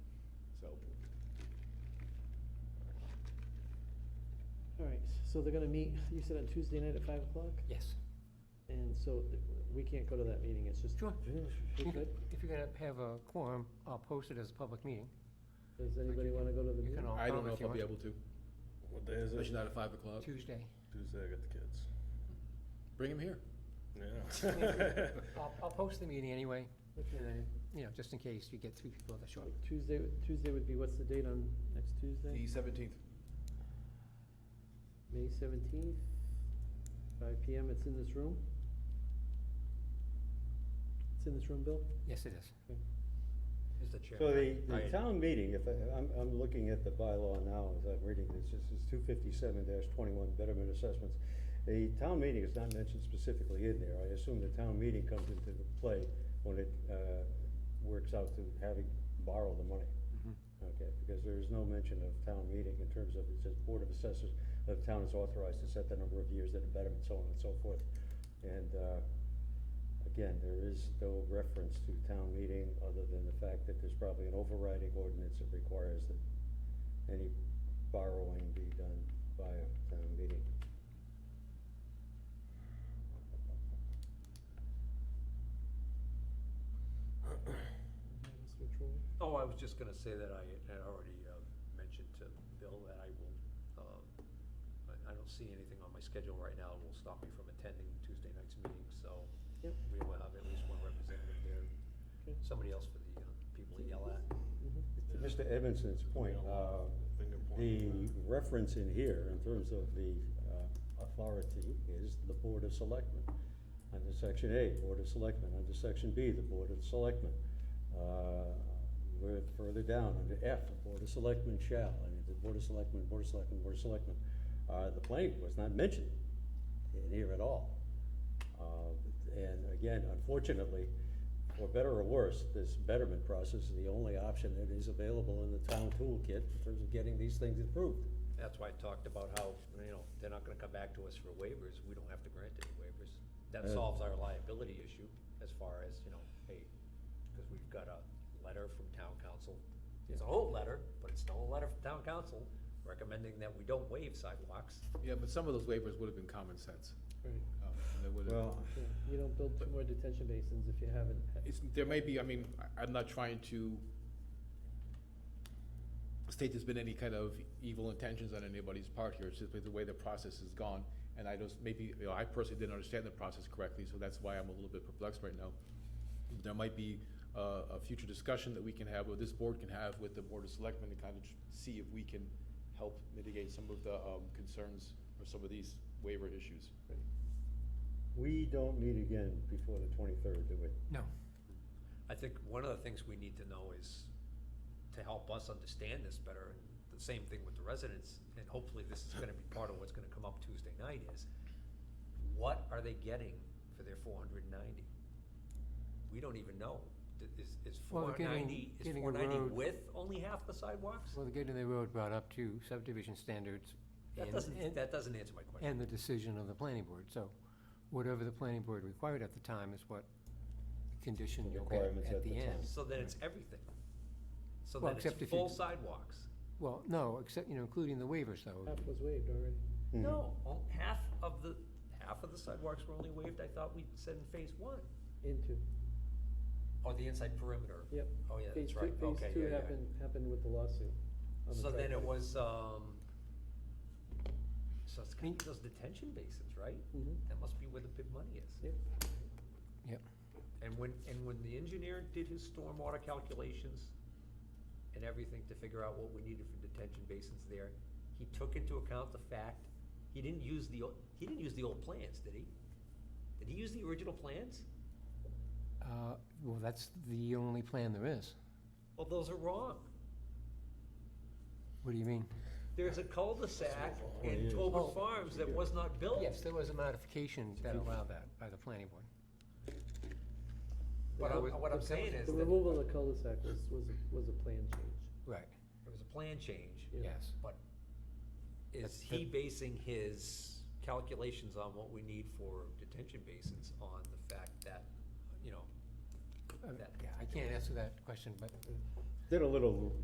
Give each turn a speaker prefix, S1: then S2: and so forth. S1: So they're gonna meet, you said on Tuesday night at five o'clock?
S2: Yes.
S1: And so th- we can't go to that meeting, it's just,
S2: Sure.
S1: we
S2: You
S1: could,
S2: could- If you're gonna have a quorum, I'll post it as a public meeting.
S1: does anybody wanna go to the
S2: You
S1: meeting?
S2: can all
S3: I don't
S2: come
S3: know
S2: if
S3: if
S2: you
S3: I'll be
S2: want.
S3: able to,
S4: What day is
S3: especially
S4: it?
S3: not at five o'clock.
S2: Tuesday.
S4: Tuesday, I got the kids.
S3: Bring him here.
S4: Yeah.
S2: I'll, I'll post the meeting anyway,
S1: Okay.
S2: you know, just in case you get three people that show up.
S1: Tuesday, Tuesday would be, what's the date on next Tuesday?
S3: The seventeenth.
S1: May seventeenth, five P M, it's in this room? It's in this room, Bill?
S2: Yes, it is.
S3: Mr. Chair.
S5: So the,
S3: I-
S5: the town meeting, if, I- I'm, I'm looking at the bylaw now as I'm reading this, this is two fifty-seven twenty-one betterment assessments. The town meeting is not mentioned specifically in there, I assume the town meeting comes into play when it, uh, works out to having borrowed the money.
S2: Mm-hmm.
S5: Okay, because there is no mention of town meeting in terms of, it says Board of Assessors, the town is authorized to set the number of years that a betterment, so on and so forth. And, uh, again, there is no reference to town meeting, other than the fact that there's probably an overriding ordinance that requires that any borrowing be done by a town meeting.
S1: Mr. Troy?
S6: Oh, I was just gonna say that I had already uh, mentioned to Bill that I will, um, I- I don't see anything on my schedule right now that will stop me from attending Tuesday night's meeting, so
S1: Yep.
S6: we will have at least one representative there,
S1: Okay.
S6: somebody else for the uh, people to yell at.
S1: Mhm.
S5: To Mr. Edmondson's point, uh,
S4: Finger
S5: the
S4: point.
S5: reference in here, in terms of the, uh, authority, is the Board of Selectmen. Under section A, Board of Selectmen, under section B, the Board of Selectmen. Uh, we're further down, under F, the Board of Selectmen shall, I mean, the Board of Selectmen, Board of Selectmen, Board of Selectmen. Uh, the planning was not mentioned in here at all. Uh, And again, unfortunately, for better or worse, this betterment process is the only option that is available in the town toolkit in terms of getting these things improved.
S6: That's why I talked about how, you know, they're not gonna come back to us for waivers, we don't have to grant any waivers. That
S5: Uh,
S6: solves our liability issue as far as, you know, hey, because we've got a letter from town council. It's a whole letter, but it's still a letter from town council recommending that we don't waive sidewalks.
S3: Yeah, but some of those waivers would have been common sense.
S1: Right,
S3: Um, and they would have-
S5: Well,
S1: yeah, you don't build two more detention basins if you haven't. had-
S3: It's, there may be, I mean, I, I'm not trying to state there's been any kind of evil intentions on anybody's part here, it's just the way the process has gone. And I just, maybe, you know, I personally didn't understand the process correctly, so that's why I'm a little bit perplexed right now. There might be a, a future discussion that we can have, or this board can have with the Board of Selectmen to kind of tr- see if we can help mitigate some of the, um, concerns or some of these waiver issues.
S5: we don't meet again before the twenty-third, do we?
S2: No.
S6: I think one of the things we need to know is to help us understand this better, and the same thing with the residents, and hopefully this is gonna be part of what's gonna come up Tuesday night is, what are they getting for their four hundred and ninety? We don't even know. Th- Is, is
S2: Well,
S6: four
S2: they're getting-
S6: ninety, is
S2: getting a
S6: four ninety
S2: road.
S6: with only half the sidewalks?
S2: Well, the gate of the road brought up to subdivision standards
S6: That
S2: and-
S6: doesn't,
S2: and,
S6: that doesn't answer my question.
S2: and the decision of the planning board. So whatever the planning board required at the time is what condition
S5: The
S2: you'll get
S5: requirements
S2: at
S5: at
S2: the
S5: the time.
S2: end.
S6: So then it's everything. So
S2: Well,
S6: then
S2: except
S6: it's
S2: if you
S6: full
S2: d-
S6: sidewalks.
S2: Well, no, except, you know, including the waivers though.
S1: Half was waived already.
S6: No, on- half of the, half of the sidewalks were only waived, I thought we said in phase one.
S1: Into,
S6: Oh, the inside perimeter.
S1: yep.
S6: Oh, yeah,
S1: Phase
S6: that's
S1: two-
S6: right, okay,
S1: Phase
S6: yeah,
S1: two
S6: yeah.
S1: happened, happened with the lawsuit. on the
S6: So then it
S1: property.
S6: was, um, so it's kind of those detention basins, right?
S1: Mhm.
S6: That must be where the big money is.
S1: Yep.
S2: Yep.
S6: And when, and when the engineer did his stormwater calculations and everything to figure out what we needed for detention basins there, he took into account the fact, he didn't use the, o- he didn't use the old plans, did he? Did he use the original plans?
S2: Uh, well, that's the only plan there is.
S6: Well, those are wrong.
S2: What do you mean?
S6: There's a cul-de-sac in
S5: years.
S6: Tolbert Farms that was not built.
S2: Yes, there was a modification that allowed that by the planning board.
S6: What I'm, what I'm saying is
S1: The
S6: that
S1: removal of the cul-de-sac was, was, a- was a plan change.
S2: Right,
S6: It was a plan change,
S1: Yeah.
S2: yes.
S6: but
S2: That's-
S6: is he basing his calculations on what we need for detention basins on the fact that, you know,
S2: Uh,
S6: that
S2: Yeah, I can't answer that question, but
S5: Did a little